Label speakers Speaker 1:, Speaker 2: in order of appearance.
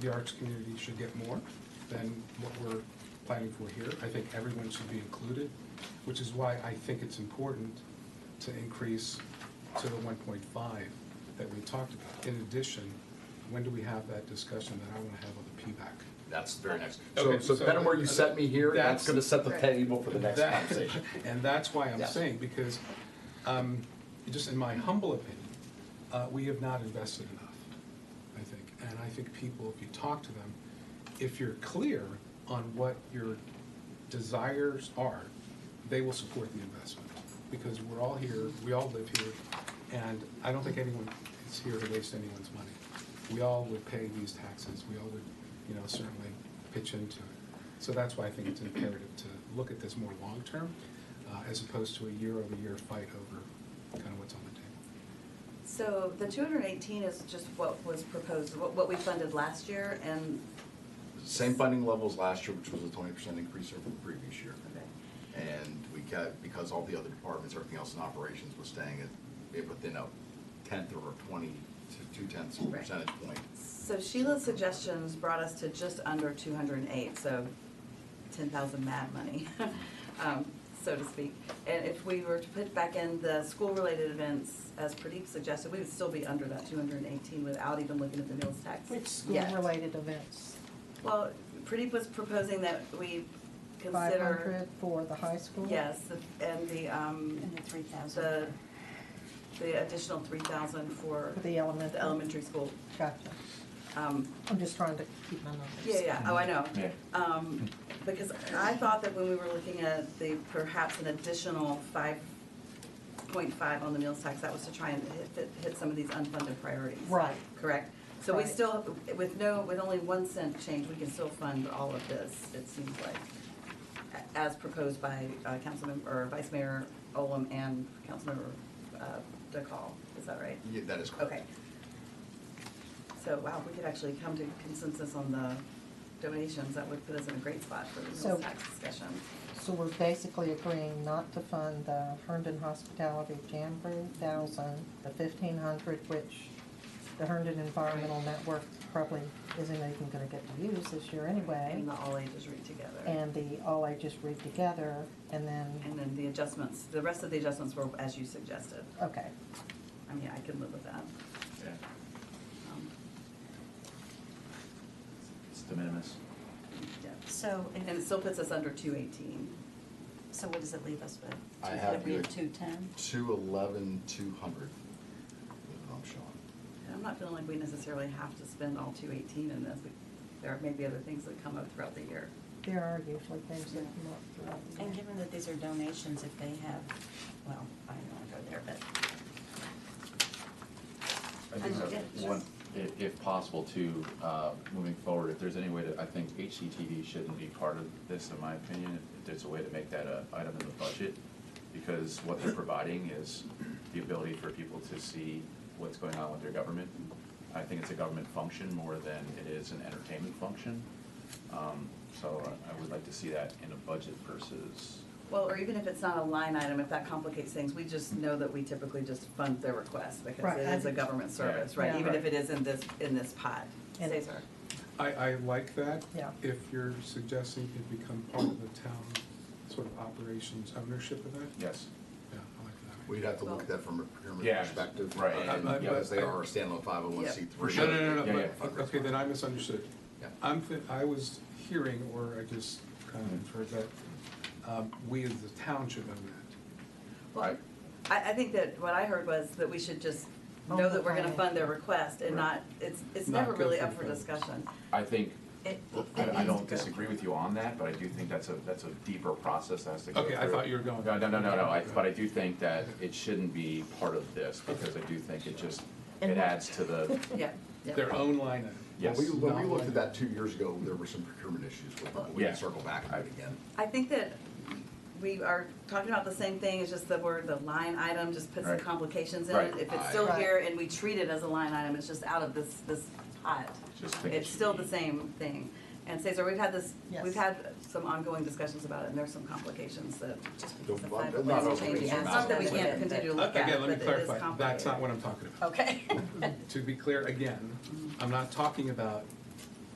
Speaker 1: the arts community should get more than what we're planning for here. I think everyone should be included, which is why I think it's important to increase to the one point five that we talked about. In addition, when do we have that discussion that I want to have on the PBAC?
Speaker 2: That's the very next.
Speaker 3: So,
Speaker 1: Okay,
Speaker 3: so
Speaker 1: so-
Speaker 3: depending where you set me here, that's
Speaker 1: That's-
Speaker 3: gonna set the
Speaker 4: Right.
Speaker 3: table for the next
Speaker 1: That-
Speaker 3: conversation.
Speaker 1: And that's why I'm
Speaker 3: Yeah.
Speaker 1: saying, because, um, just in my humble opinion, uh, we have not invested enough, I think. And I think people, if you talk to them, if you're clear on what your desires are, they will support the investment. Because we're all here, we all live here, and I don't think anyone is here to waste anyone's money. We all would pay these taxes, we all would, you know, certainly pitch into it. So that's why I think it's imperative to look at this more long-term, uh, as opposed to a year-over-year fight over kind of what's on the table.
Speaker 4: So the two hundred and eighteen is just what was proposed, what, what we funded last year and,
Speaker 2: Same funding levels last year, which was a twenty percent increase over the previous year. And we got, because all the other departments, everything else in operations was staying at, it within a tenth or a twenty to two tenths of a
Speaker 4: Right.
Speaker 2: percentage point.
Speaker 4: so Sheila's suggestions brought us to just under two hundred and eight, so ten thousand mad money, um, so to speak. And if we were to put back in the school-related events, as Pradeep suggested, we would still be under that two hundred and eighteen without even looking at the meals tax.
Speaker 5: Which
Speaker 4: yet.
Speaker 5: school-related events?
Speaker 4: Well, Pradeep was proposing that we consider.
Speaker 5: Five hundred for the high school?
Speaker 4: Yes, the- and the, um,
Speaker 6: And the three thousand.
Speaker 4: the, the additional three thousand for
Speaker 5: For the elementary?
Speaker 4: the elementary school.
Speaker 5: Gotcha.
Speaker 4: Um,
Speaker 5: I'm just trying to keep my numbers.
Speaker 4: Yeah, yeah, oh, I know.
Speaker 3: Yeah.
Speaker 4: Um, Because I thought that when we were looking at the perhaps an additional five point five on the meals tax, that was to try and hit, hit some of these unfunded priorities.
Speaker 5: Right.
Speaker 4: Correct? So we
Speaker 5: Right.
Speaker 4: still, with no, with only one cent change, we can still fund all of this, it seems like, a- as proposed by uh, Councilmember, or Vice Mayor Olem and Councilmember uh, DeCall, is that right?
Speaker 2: Yeah, that is correct.
Speaker 4: Okay. So, wow, we could actually come to consensus on the donations, that would put us in a great spot for the
Speaker 5: So-
Speaker 4: meals tax discussion.
Speaker 5: So we're basically agreeing not to fund the Herndon Hospitality Jamboree thousand, the fifteen hundred, which the Herndon Environmental Network probably isn't even gonna get to use this year anyway.
Speaker 4: And the all ages read together.
Speaker 5: And the all ages read together, and then,
Speaker 4: And then the adjustments, the rest of the adjustments were as you suggested.
Speaker 5: okay,
Speaker 4: I mean, I can live with that. Um,
Speaker 7: It's de minimis.
Speaker 4: yeah.
Speaker 6: So, if-
Speaker 4: And it still puts us under two eighteen.
Speaker 6: so what does it leave us with?
Speaker 2: I have
Speaker 6: Would we
Speaker 2: you
Speaker 6: have
Speaker 2: at-
Speaker 6: two ten?
Speaker 2: Two eleven, two hundred, I'm showing.
Speaker 4: And I'm not feeling like we necessarily have to spend all two eighteen in this. We- There may be other things that come up throughout the year.
Speaker 5: there are usually things that come up. throughout the
Speaker 6: And
Speaker 5: year.
Speaker 6: given that these are donations, if they have, well, I don't wanna go there, but
Speaker 7: I think
Speaker 4: Yeah,
Speaker 7: that
Speaker 4: sure.
Speaker 7: one, if, if possible, too, uh, moving forward, if there's any way to, I think HCTV shouldn't be part of this, in my opinion, if- if there's a way to make that a item in the budget, because what they're providing is the ability for people to see what's going on with their government. I think it's a government function more than it is an entertainment function. Um, so I- I would like to see that in a budget versus,
Speaker 4: Well, or even if it's not a line item, if that complicates things, we just know that we typically just fund their request because
Speaker 5: Right.
Speaker 4: it is a government service, right?
Speaker 5: Yeah.
Speaker 4: Even if it is in this, in this pot.
Speaker 5: And-
Speaker 4: Cesar?
Speaker 1: I, I like that.
Speaker 5: Yeah.
Speaker 1: If you're suggesting it become part of the town sort of operations ownership of that,
Speaker 7: yes.
Speaker 1: yeah, I like that.
Speaker 2: We'd have to look at that from a procurement
Speaker 7: Yeah.
Speaker 2: perspective. uh,
Speaker 7: Right.
Speaker 2: and-
Speaker 1: I- I-
Speaker 2: Because they
Speaker 1: I-
Speaker 2: are a standalone five oh one C
Speaker 4: Yeah.
Speaker 2: three.
Speaker 1: No, no, no,
Speaker 7: Yeah,
Speaker 1: no,
Speaker 7: yeah.
Speaker 1: but, okay, then I misunderstood.
Speaker 2: Yeah.
Speaker 1: I'm, thi- I was hearing, or I just kind
Speaker 2: Mm-hmm.
Speaker 1: of inferred that, um, we as the town should own that.
Speaker 4: Well, I, I think that what I heard was that we should just know that we're gonna fund their request and not, it's, it's
Speaker 1: Not
Speaker 4: never
Speaker 1: go
Speaker 4: really
Speaker 1: through
Speaker 4: up for
Speaker 1: the-
Speaker 4: discussion.
Speaker 7: I think,
Speaker 4: It- it
Speaker 7: I, I
Speaker 4: needs
Speaker 7: don't
Speaker 4: to go.
Speaker 7: disagree with you on that, but I do think that's a, that's a deeper process that has to go
Speaker 1: Okay,
Speaker 7: through.
Speaker 1: I thought you were going-
Speaker 7: No, no, no, no, no, I, but I do think that it shouldn't be part of this, because I do think it just, it adds to the,
Speaker 4: Yeah, yeah.
Speaker 1: Their own line item.
Speaker 2: When
Speaker 7: yes.
Speaker 2: we, when we
Speaker 1: Not
Speaker 2: looked at
Speaker 1: like-
Speaker 2: that two years ago, there were some procurement issues with it, but we
Speaker 7: Yeah.
Speaker 2: can circle back on it again.
Speaker 4: I think that we are talking about the same thing, it's just the word, the line item just puts some
Speaker 7: Right.
Speaker 4: complications in it.
Speaker 7: Right.
Speaker 4: If it's
Speaker 2: Aye.
Speaker 4: still
Speaker 5: Right.
Speaker 4: here and we treat it as a line item, it's just out of this, this pot.
Speaker 7: Just think it
Speaker 4: It's
Speaker 7: should
Speaker 4: still
Speaker 7: be-
Speaker 4: the same thing. And Cesar, we've had this, we've
Speaker 5: Yes.
Speaker 4: had some ongoing discussions about it, and there's some complications that just
Speaker 2: Don't-
Speaker 4: the
Speaker 2: not-
Speaker 4: five
Speaker 2: not
Speaker 4: points
Speaker 2: overly
Speaker 4: changing. It's not that we
Speaker 2: surmountable.
Speaker 4: can't continue to
Speaker 1: Uh,
Speaker 4: look at, it,
Speaker 1: Again,
Speaker 4: but
Speaker 1: let me
Speaker 4: it is
Speaker 1: clarify, that's
Speaker 4: complicated. Oh,
Speaker 1: not what I'm talking about.
Speaker 4: Okay.
Speaker 1: To be clear, again, I'm not talking about